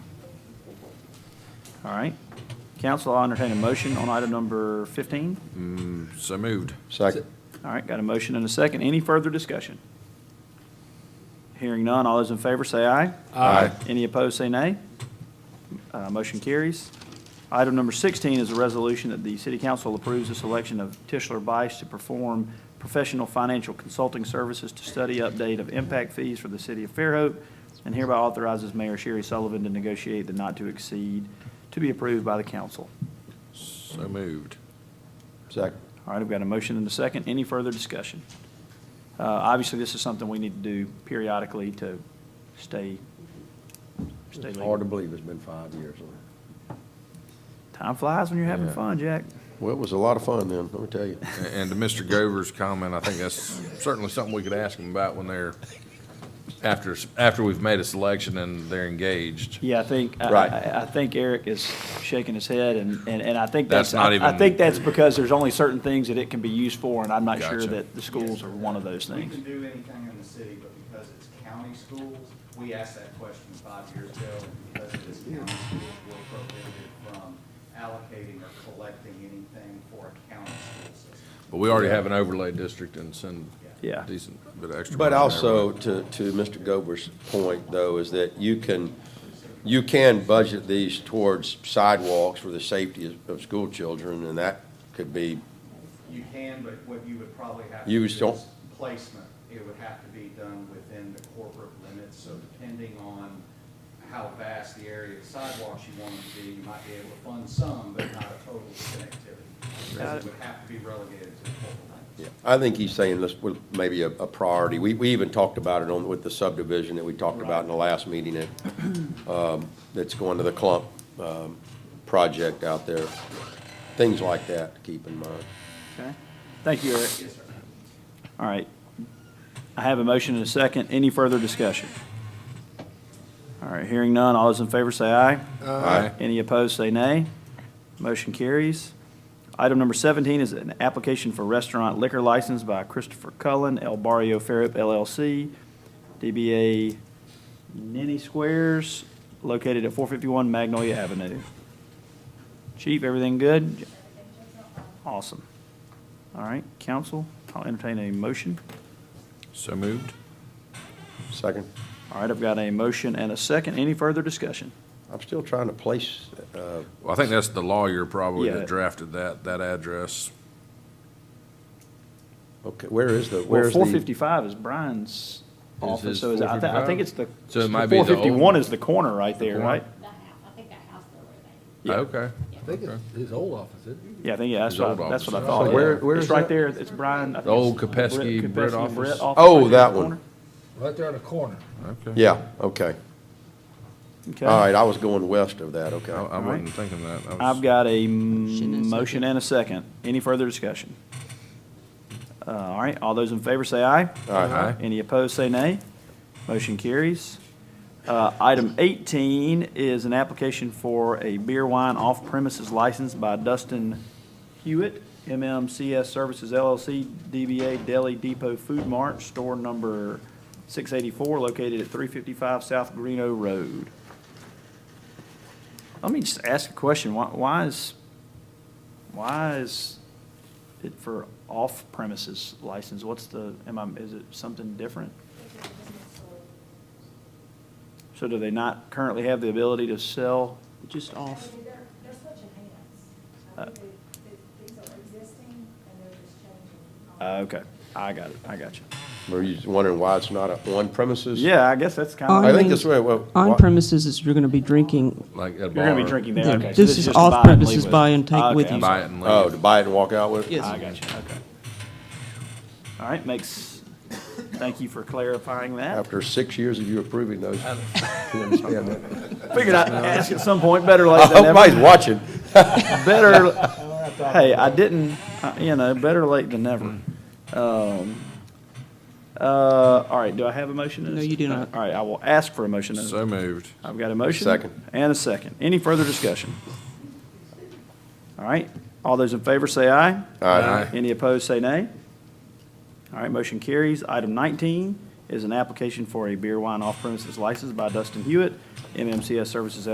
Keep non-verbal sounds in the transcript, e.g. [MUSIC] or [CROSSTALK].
All right. Council, I'll entertain a motion on item number 15. So moved. Second. All right, got a motion and a second. Any further discussion? Hearing none, all those in favor say aye. Aye. Any opposed, say nay. Uh, Motion carries. Item number 16 is a resolution that the city council approves the selection of Tischler Bice to perform professional financial consulting services to study update of impact fees for the city of Fairhope, and hereby authorizes Mayor Sherry Sullivan to negotiate the not to exceed to be approved by the council. So moved. Second. All right, I've got a motion and a second. Any further discussion? Uh, Obviously, this is something we need to do periodically to stay, stay It's legal. hard to believe it's been five years. Time flies when you're having Yeah. fun, Jack. Well, it was a lot of fun then, let me tell you. A- And to Mr. Gover's comment, I think that's certainly something we could ask them about when they're, after, after we've made a selection and they're engaged. Yeah, I think, I- Right. I, I think Eric is shaking his head, and, and and I think that's, That's I not I even- think that's because there's only certain things that it can be used for, and I'm not sure Gotcha. that the schools are one of those We things. can do anything in the city, but because it's county schools, we asked that question five years ago, and because it is county schools, we're prohibited from allocating or collecting anything for a county school system. But we already have an overlay district and send Yeah. decent bit of extra. [LAUGHS] But money there, also, to, to Mr. Gober's point, though, is that you can, you can budget these towards sidewalks for the safety of, of school children, and that could be, You can, but what you would probably have to You do is still- placement. It would have to be done within the corporate limits, so depending on how vast the area of sidewalks you want it to be, you might be able to fund some, but not a total connectivity. Got Because it. it would have to be relegated to the corporate limits. I think he's saying this was maybe a, a priority. We, we even talked about it on, with the subdivision that we talked about in the last meeting, that, um, that's going to the clump, um, project out there. Things like that to keep in mind. Okay? Thank you, Eric. All right. I have a motion and a second. Any further discussion? All right, hearing none. All those in favor say aye. Aye. Any opposed, say nay. Motion carries. Item number 17 is an application for restaurant liquor license by Christopher Cullen, El Barrio Fairhope LLC, DBA Nenny Squares, located at 451 Magnolia Avenue. Chief, everything good? Awesome. All right, council, I'll entertain a motion. So moved. Second? All right, I've got a motion and a second. Any further discussion? I'm still trying to place, uh, Well, I think that's the lawyer probably Yeah. that drafted that, that address. okay, where is the, Well, where's the? four fifty-five is Brian's office, his so is, I think, I 455? think it's the. So it might be the old- Four fifty-one is the corner right there, corner? right? that house, I think that house there where they. Yeah. Okay. I think it's his old office, isn't Yeah, I think, yeah, that's His what, old I- that's what I office. thought. So where- yeah. where It's is right that? there, it's Brian. I think The old it's Brett- Kopesky Kopesky Brett and office? Oh, right there that in the one. corner. it? Right there in the corner. Okay. Yeah, okay. Okay. Oh, All right, I was going west of that, I, okay. I All right. wasn't thinking that. I was- I've got a and a motion second. and a second. Any further discussion? Uh, all right, all those in favor say aye. Aye. Any opposed, say nay. Motion carries. Uh, item eighteen is an application for a beer wine off-premises license by Dustin Hewitt, MMCS Services LLC, DBA Deli Depot Food Mart, store number six eighty-four, located at three fifty-five South Greeno Road. Let me just ask a question. Why, why is, why is it for off-premises license? What's the, am I, is it something different? So do they not currently have the ability to sell? Just off. They're, they're switching hands. I think they- they- these are existing and they're just changing. Uh, Okay, I got it, I got you. Were you wondering why it's not a- on premises? Yeah, I guess that's kind I of, think that's right, well. On why- premises is you're going to be drinking. Like at a you're gonna be bar. drinking Yeah, there, okay. so this is just to buy and leave off-premises with. buy and take Okay, with I'm you. Buy it and Oh, to leave. buy it and walk out with it? Yes. I got you, okay. All right, makes, thank you for clarifying that. After six years of you approving those. [LAUGHS] You understand that? Figured I'd ask at some point, better [LAUGHS] I late [LAUGHS] Oh, hope than never. Oh, nobody's watching. [LAUGHS] better, hey, I didn't, uh, you know, better late than never. Um, uh, All right, do I have a motion? and a No, s- you do not. All right, I will ask for a motion. and a- So moved. I've got a motion. Second. And a second. Any further discussion? All right, all those in favor say aye. Aye. Any opposed, say nay. All right, motion carries. Item 19 is an application for a beer, wine, off-premises license by Dustin Hewitt, MMCS Services